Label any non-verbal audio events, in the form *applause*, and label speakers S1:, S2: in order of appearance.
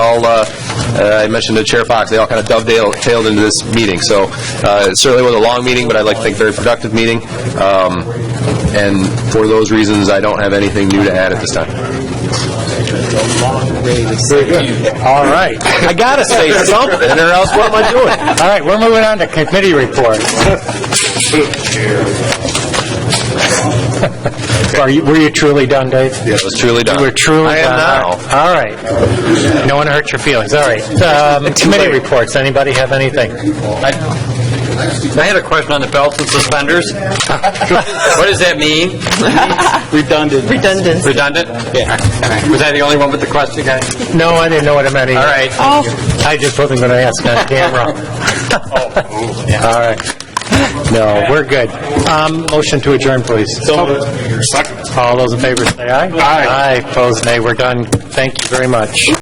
S1: all, uh, uh, I mentioned to Chair Fox, they all kind of dovetailed tailed into this meeting. So uh, it certainly was a long meeting, but I'd like to think very productive meeting. Um, And for those reasons, I don't have anything new to add at this time.
S2: All right.
S1: I gotta say *laughs* something, or else what am I doing?
S2: All right, we're moving on to committee
S1: *laughs*
S2: reports. Are you, were you truly done, Dave?
S1: Yeah, it was truly done.
S2: You were truly done.
S1: I am now.
S2: All right. No one hurt your feelings. All right. Um, Committee reports, anybody have anything?
S3: I had a question on the belts and
S1: *laughs*
S3: suspenders. What does that mean?
S4: Redundant.
S3: Redundant? Yeah. Was I the only one with the question, guys?
S2: No, I didn't know what it meant either.
S3: All right.
S2: I just wasn't going to ask on camera. All right. No, we're good. Um, Motion to adjourn, please. All those in favor say aye. Aye. Aye, opposed nay, we're done. Thank you very much.